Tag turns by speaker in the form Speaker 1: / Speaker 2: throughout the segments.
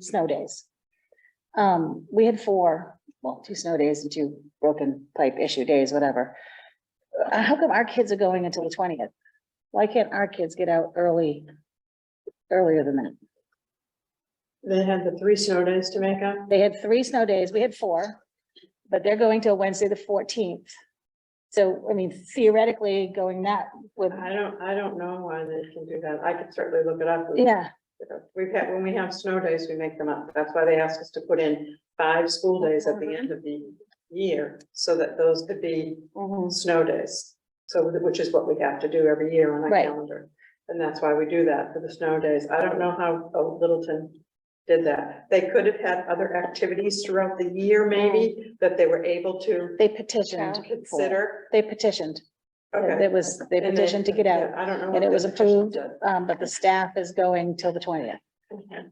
Speaker 1: snow days. Um, we had four, well, two snow days and two broken pipe issue days, whatever. Uh, how come our kids are going until the twentieth? Why can't our kids get out early? Earlier than that?
Speaker 2: They had the three snow days to make up.
Speaker 1: They had three snow days, we had four, but they're going till Wednesday, the fourteenth. So, I mean, theoretically, going that with,
Speaker 2: I don't, I don't know why they can do that. I could certainly look it up.
Speaker 1: yeah,
Speaker 2: We've had, when we have snow days, we make them up. That's why they asked us to put in five school days at the end of the year, so that those could be snow days. So, which is what we have to do every year on our
Speaker 1: Right.
Speaker 2: calendar. And that's why we do that for the snow days. I don't know how uh, Littleton did that. They could have had other activities throughout the year,
Speaker 1: Oh.
Speaker 2: maybe, that they were able to
Speaker 1: they petitioned. for-
Speaker 2: consider.
Speaker 1: They petitioned,
Speaker 2: Okay.
Speaker 1: There was, they
Speaker 2: And
Speaker 1: petitioned to get out.
Speaker 2: I don't know.
Speaker 1: And
Speaker 2: what
Speaker 1: it
Speaker 2: they
Speaker 1: was
Speaker 2: petitioned
Speaker 1: approved, um, but the staff is going till the twentieth.
Speaker 2: to.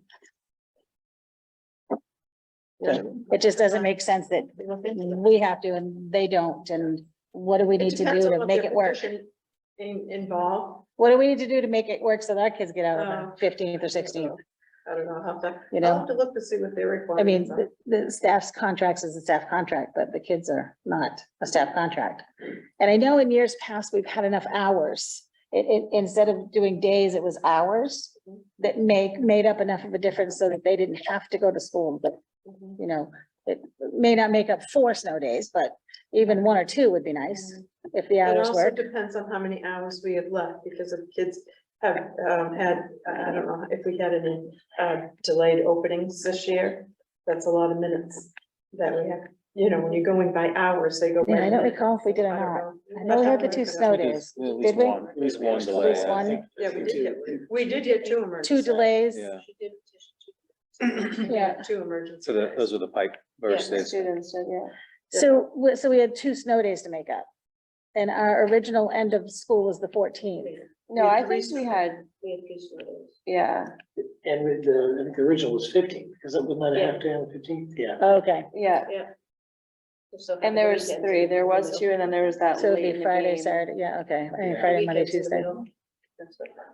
Speaker 1: Yeah. It just doesn't make sense that we have to and they don't, and what do we need to
Speaker 2: depends
Speaker 1: do
Speaker 2: on
Speaker 1: to
Speaker 2: what
Speaker 1: make
Speaker 2: their
Speaker 1: it work?
Speaker 2: petition In, involved,
Speaker 1: What do we need to do to make it work so that our kids get out on
Speaker 2: Oh.
Speaker 1: the fifteenth or sixteenth?
Speaker 2: I don't know how that,
Speaker 1: You
Speaker 2: I'll
Speaker 1: know?
Speaker 2: have to look to see what they require.
Speaker 1: I mean, the, the staff's contracts is a staff contract, but the kids are not a staff contract. And I know in years past, we've had enough hours. It, it, instead of doing days, it was hours that make, made up enough of a difference so that they didn't have to go to school, but
Speaker 2: Mm-hmm.
Speaker 1: you know, it may not make up four snow days, but even one or two would be nice if the
Speaker 2: Mm. It
Speaker 1: hours
Speaker 2: also
Speaker 1: work.
Speaker 2: depends on how many hours we have left, because if kids have, um, had, I I don't know, if we had any, uh, delayed openings this year, that's a lot of minutes that we have, you know, when you're going by hours, they go. by
Speaker 1: Yeah, I don't
Speaker 2: minutes.
Speaker 1: recall if we did or not.
Speaker 2: don't
Speaker 1: I know we had the
Speaker 2: I'll
Speaker 1: two
Speaker 2: look it up.
Speaker 1: snow
Speaker 3: At least- at least
Speaker 1: Did we?
Speaker 3: one- At least one
Speaker 1: At
Speaker 3: delay.
Speaker 1: least
Speaker 3: I
Speaker 1: one?
Speaker 3: think.
Speaker 2: Yeah, we did, get- we did get two
Speaker 1: Two
Speaker 2: emergencies.
Speaker 1: delays.
Speaker 3: Yeah.
Speaker 1: Yeah.
Speaker 2: Two emergencies.
Speaker 3: So that, those are the pipe burst days.
Speaker 1: So, we- so we had two snow days to make up. And our original end of school was the fourteenth.
Speaker 4: No,
Speaker 2: We had
Speaker 4: I
Speaker 2: three
Speaker 4: think we
Speaker 2: snow-
Speaker 4: had,
Speaker 2: We had three snow days.
Speaker 4: yeah,
Speaker 5: And with the, I think the original was fifteen, because it was not a half day on fifteen, yeah.
Speaker 1: Okay,
Speaker 4: yeah, and there was three, there was two, and then there was that
Speaker 1: so
Speaker 4: late
Speaker 1: it'd
Speaker 4: in
Speaker 1: be
Speaker 4: the
Speaker 1: Friday,
Speaker 4: game.
Speaker 1: Saturday, yeah, okay, I mean,
Speaker 3: Yeah.
Speaker 1: Friday, Monday, Tuesday.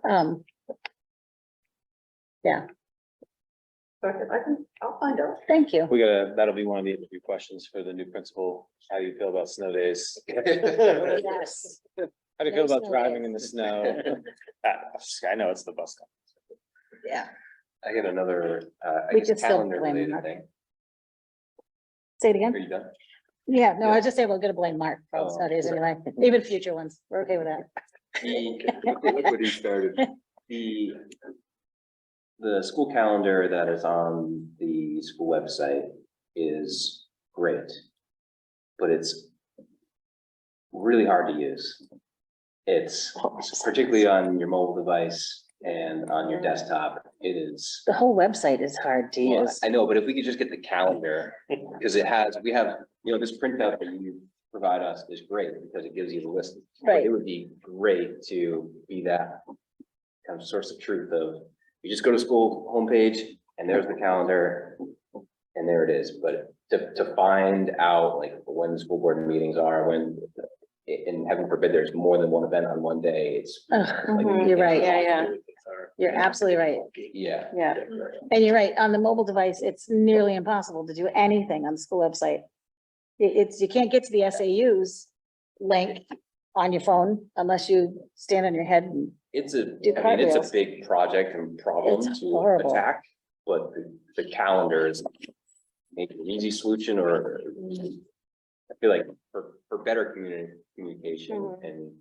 Speaker 1: Um,
Speaker 2: I can, I'll find out.
Speaker 1: thank you.
Speaker 3: We gotta, that'll be one of the interview questions for the new principal. How do you feel about snow days? How do
Speaker 1: Yes.
Speaker 3: you feel
Speaker 1: No
Speaker 3: about
Speaker 1: snow
Speaker 3: driving in the snow? Uh, I know it's the bus. company.
Speaker 1: Yeah,
Speaker 6: I got another, uh, I
Speaker 1: We could
Speaker 6: guess
Speaker 1: still
Speaker 6: calendar
Speaker 1: blame
Speaker 6: related
Speaker 1: Mark.
Speaker 6: thing.
Speaker 1: say it
Speaker 6: Are
Speaker 1: again.
Speaker 6: you done?
Speaker 1: Yeah, no, I was just saying we're gonna blame Mark for all the
Speaker 6: Oh,
Speaker 1: snow days
Speaker 6: okay.
Speaker 1: anyway, even future ones. We're okay with that.
Speaker 6: The- Look what he started. The, the school calendar that is on the school website is great. But it's really hard to use. It's particularly on your mobile device and on your desktop. It is
Speaker 1: The whole website is hard to
Speaker 6: Well,
Speaker 1: use.
Speaker 6: I know, but if we could just get the calendar, because it has, we have, you know, this printout that you provide us is great because it gives you the list. But
Speaker 1: Right.
Speaker 6: It would be great to be that kind of source of truth of, you just go to school homepage and there's the calendar. And there it is, but to, to find out like when the school board meetings are, when, and heaven forbid, there's more than one event on one day, it's.
Speaker 1: Ugh,
Speaker 6: like,
Speaker 4: Mhm.
Speaker 1: You're right.
Speaker 4: Yeah, yeah,
Speaker 1: You're absolutely right.
Speaker 6: Yeah.
Speaker 4: yeah,
Speaker 1: And you're right, on the mobile device, it's nearly impossible to do anything on the school website. It- it's, you can't get to the SAU's link on your phone unless you stand on your head. and-
Speaker 6: It's a,
Speaker 1: Do
Speaker 6: I mean, it's
Speaker 1: cartwheels.
Speaker 6: a big project and problem
Speaker 1: It's
Speaker 6: to
Speaker 1: horrible.
Speaker 6: attack, but the- the calendar is maybe an easy solution or I feel like for, for better communi- communication
Speaker 4: Mhm.
Speaker 6: and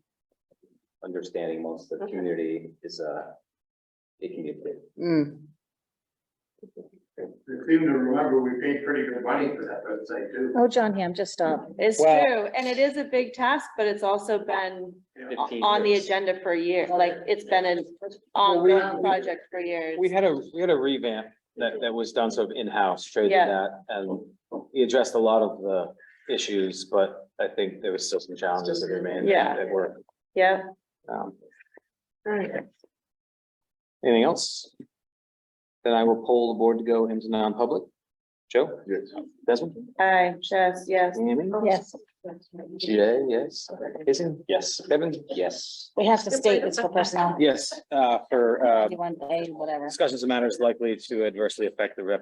Speaker 6: understanding amongst the
Speaker 2: Okay.
Speaker 6: community is a, it can be a bit
Speaker 1: Mm.
Speaker 7: We seem to remember we paid pretty good money for that website too.
Speaker 1: Oh, John Hamm, just stop.
Speaker 4: it's
Speaker 3: Well-
Speaker 4: true, and it is a big task, but it's also been o-
Speaker 6: 15
Speaker 4: on the
Speaker 6: years.
Speaker 4: agenda for a year, like, it's been an
Speaker 3: Well, we-
Speaker 4: ongoing project for years.
Speaker 3: We had a, we had a revamp that, that was done sort of in-house, traded
Speaker 4: Yeah.
Speaker 3: that, and we addressed a lot of the issues, but I think there was still some challenges that remained. that-
Speaker 4: Yeah.
Speaker 3: That were,
Speaker 4: Yeah,
Speaker 3: um,
Speaker 2: All right.
Speaker 3: anything else? Then I will poll the board to go into non-public. Joe?
Speaker 7: Yes.
Speaker 3: Desmond?
Speaker 4: I, Jess, yes,
Speaker 3: Amy?
Speaker 1: Yes,
Speaker 3: Jay, yes. Jason? Yes. Kevin? Yes.
Speaker 1: we have to state it's for personnel.
Speaker 3: Yes, uh, for, uh,
Speaker 1: One day, whatever.
Speaker 3: discussions of matters likely to adversely affect the reputation